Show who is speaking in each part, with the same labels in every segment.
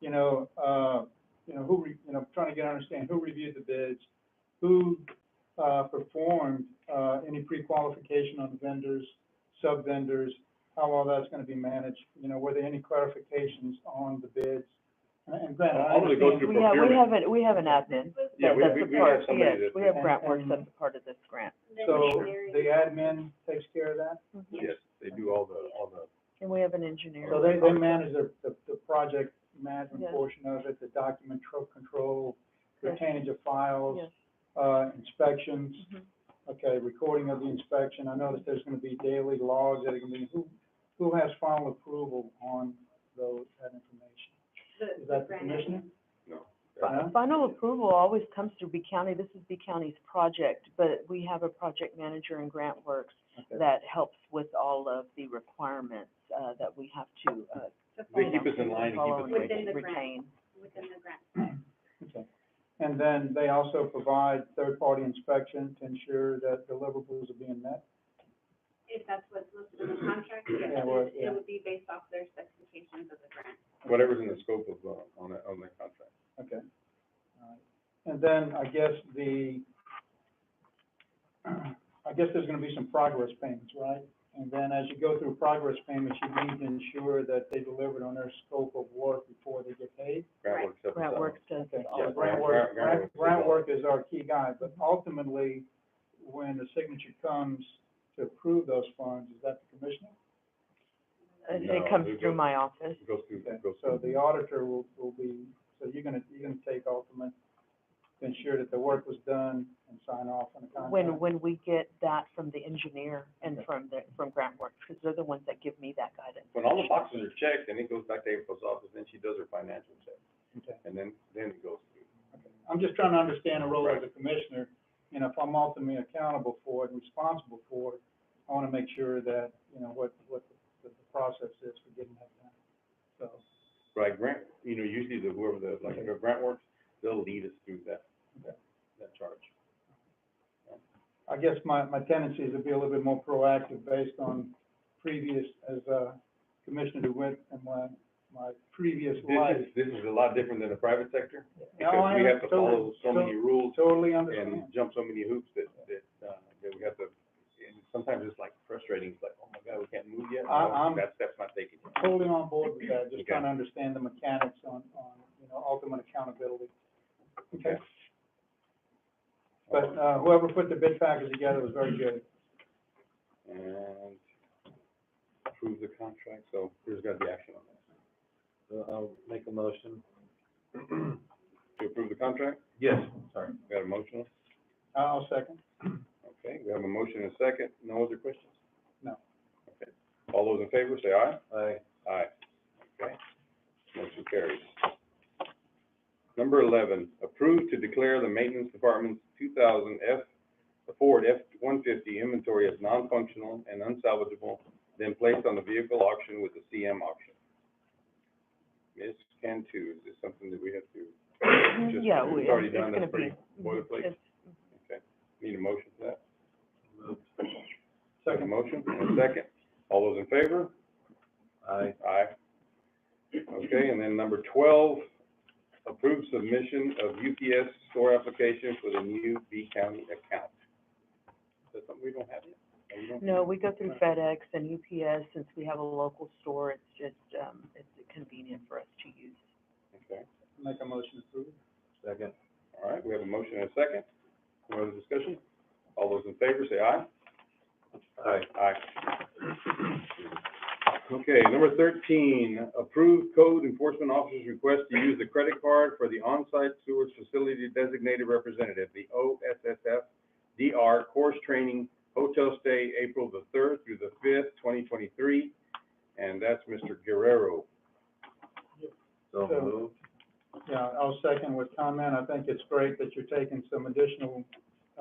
Speaker 1: you know, uh, you know, who, re- you know, trying to get, understand who reviewed the bids, who, uh, performed, uh, any pre-qualification on vendors, sub-vendors, how all that's gonna be managed, you know, were there any clarifications on the bids? And and granted, I
Speaker 2: I'm gonna go
Speaker 1: understand,
Speaker 2: through
Speaker 3: We have, we
Speaker 2: procurement.
Speaker 3: have, an- we have an admin
Speaker 2: Yeah,
Speaker 3: that,
Speaker 2: we,
Speaker 3: that's
Speaker 2: we,
Speaker 3: a
Speaker 2: we have
Speaker 3: part,
Speaker 2: somebody
Speaker 3: yes,
Speaker 2: that,
Speaker 3: we have
Speaker 1: And-
Speaker 3: grant works
Speaker 1: and-
Speaker 3: that's a part of this grant.
Speaker 1: so the admin takes care of that?
Speaker 2: yes, they do all the, all the,
Speaker 3: And we have an engineer.
Speaker 1: So they, they manage the, the, the project management
Speaker 3: Yes.
Speaker 1: portion of it, the document tro- control,
Speaker 3: Correct.
Speaker 1: retainage of files,
Speaker 3: Yes.
Speaker 1: uh, inspections,
Speaker 3: Mhm.
Speaker 1: okay, recording of the inspection. I noticed there's gonna be daily logs that are gonna be, who, who has final approval on those, that information? Is that the commissioner? Uh-huh.
Speaker 2: no.
Speaker 1: No?
Speaker 3: Final approval always comes through B County, this is B County's project, but we have a project manager in Grant Works
Speaker 1: Okay.
Speaker 3: that helps with all of the requirements, uh, that we have to, uh.
Speaker 2: They keep us in line and keep
Speaker 3: follow
Speaker 2: us
Speaker 3: and
Speaker 2: within
Speaker 4: the grant.
Speaker 3: Retain.
Speaker 4: Within the grant.
Speaker 1: Okay. And then they also provide third-party inspection to ensure that deliverables are being met?
Speaker 4: If that's what's listed in the contract, yes,
Speaker 1: Yeah, well,
Speaker 4: it
Speaker 1: yeah.
Speaker 4: it would be based off their specifications of the grant.
Speaker 2: whatever's in the scope of, uh, on the, on the contract.
Speaker 1: Okay. All right. And then I guess the, I guess there's gonna be some progress payments, right? And then as you go through progress payments, you need to ensure that they delivered on their scope of work before they get paid.
Speaker 2: Grant
Speaker 4: Right.
Speaker 2: works. helps us
Speaker 3: Grant
Speaker 2: out.
Speaker 3: Works does
Speaker 1: Okay,
Speaker 3: it
Speaker 1: so
Speaker 2: Yeah,
Speaker 3: all.
Speaker 1: grant
Speaker 2: grant-
Speaker 1: work, grant,
Speaker 2: grant- grant
Speaker 1: grant
Speaker 2: work
Speaker 1: work is our key guy, but ultimately, when the signature comes to approve those funds, is that the commissioner?
Speaker 3: It,
Speaker 2: No,
Speaker 3: it comes
Speaker 2: it
Speaker 3: through
Speaker 2: goes-
Speaker 3: my office.
Speaker 2: Goes through,
Speaker 1: Okay,
Speaker 2: goes
Speaker 1: so
Speaker 2: through.
Speaker 1: the auditor will, will be, so you're gonna, you're gonna take ultimate, to ensure that the work was done and sign off on the contract?
Speaker 3: When, when we get that from the engineer and
Speaker 1: Okay.
Speaker 3: from the, from Grant Works, because they're the ones that give me that guidance.
Speaker 2: When all the boxes are checked, then it goes back to April's office, then she does her financial check,
Speaker 1: Okay,
Speaker 2: and then, then it goes through.
Speaker 1: okay. I'm just trying to understand the role as a commissioner, you know, if I'm ultimately accountable for it, and responsible for it, I wanna make sure that, you know, what, what the, the process is for getting that done, so.
Speaker 2: Right, grant, you know, usually the, whoever the, like, the grant works, they'll lead us through that, that, that charge.
Speaker 1: I guess my, my tendency is to be a little bit more proactive based on previous, as a commissioner who went in my, my previous life.
Speaker 2: This is, this is a lot different than the private sector,
Speaker 1: No,
Speaker 2: because
Speaker 1: I
Speaker 2: we have to
Speaker 1: totally-
Speaker 2: follow so many rules
Speaker 1: Totally
Speaker 2: and
Speaker 1: understand.
Speaker 2: jump so many hoops that, that, uh, that we have to, and sometimes it's like frustrating, it's like, oh my God, we can't move yet.
Speaker 1: I-
Speaker 2: No,
Speaker 1: I'm-
Speaker 2: That step's not taken.
Speaker 1: Totally on board with that, just
Speaker 2: Okay.
Speaker 1: trying to understand the mechanics on, on, you know, ultimate accountability. Okay, but, uh, whoever put the bid package together was very good.
Speaker 2: And approve the contract, so there's gotta be action on that.
Speaker 5: So I'll make a motion.
Speaker 2: To approve the contract,
Speaker 5: Yes, sorry.
Speaker 2: we got a motion,
Speaker 1: I'll second.
Speaker 2: okay, we have a motion and a second, no other questions?
Speaker 1: No.
Speaker 2: Okay, all those in favor, say aye.
Speaker 5: Aye.
Speaker 2: Aye. Okay, motion carries. Number eleven, approve to declare the maintenance department's two thousand F, the Ford F one fifty inventory as non-functional and unsalvageable, then placed on the vehicle auction with the CM auction. Ms. Cantu, is this something that we have to? just-
Speaker 3: Yeah, we,
Speaker 2: It's already
Speaker 3: it's
Speaker 2: done,
Speaker 3: gonna
Speaker 2: that's
Speaker 3: be.
Speaker 2: pretty boilerplate,
Speaker 3: it's-
Speaker 2: okay. Need a motion for that? Second
Speaker 1: Second,
Speaker 2: motion, and a second. All those in favor?
Speaker 5: Aye.
Speaker 2: Aye. Okay, and then number twelve, approve submission of UPS store application for the new B County account. Is that something we don't have yet? Or we don't-
Speaker 3: No, we go through FedEx and UPS, since we have a local store, it's just, um, it's convenient for us to use.
Speaker 2: Okay,
Speaker 1: make a motion to approve.
Speaker 5: Second.
Speaker 2: all right, we have a motion and a second. No other discussion? All those in favor, say aye.
Speaker 5: Aye.
Speaker 2: Aye. Okay, number thirteen, approve code enforcement officer's request to use the credit card for the on-site sewage facility designated representative, the OSSF DR course training, hotel stay April the third through the fifth, twenty twenty-three, and that's Mr. Guerrero.
Speaker 5: So
Speaker 1: So-
Speaker 5: moved.
Speaker 1: Yeah, I'll second with comment. I think it's great that you're taking some additional,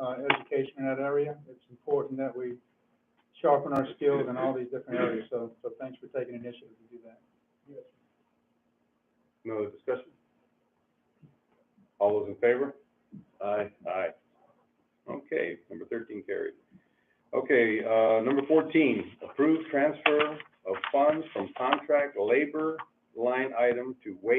Speaker 1: uh, education in that area. It's important that we sharpen our skills in all these different areas, so, so thanks for taking initiative to do that.
Speaker 2: No other discussion? All those in favor?
Speaker 5: Aye.
Speaker 2: Aye. Okay, number thirteen carried. Okay, uh, number fourteen, approved transfer of funds from contract labor line item to wage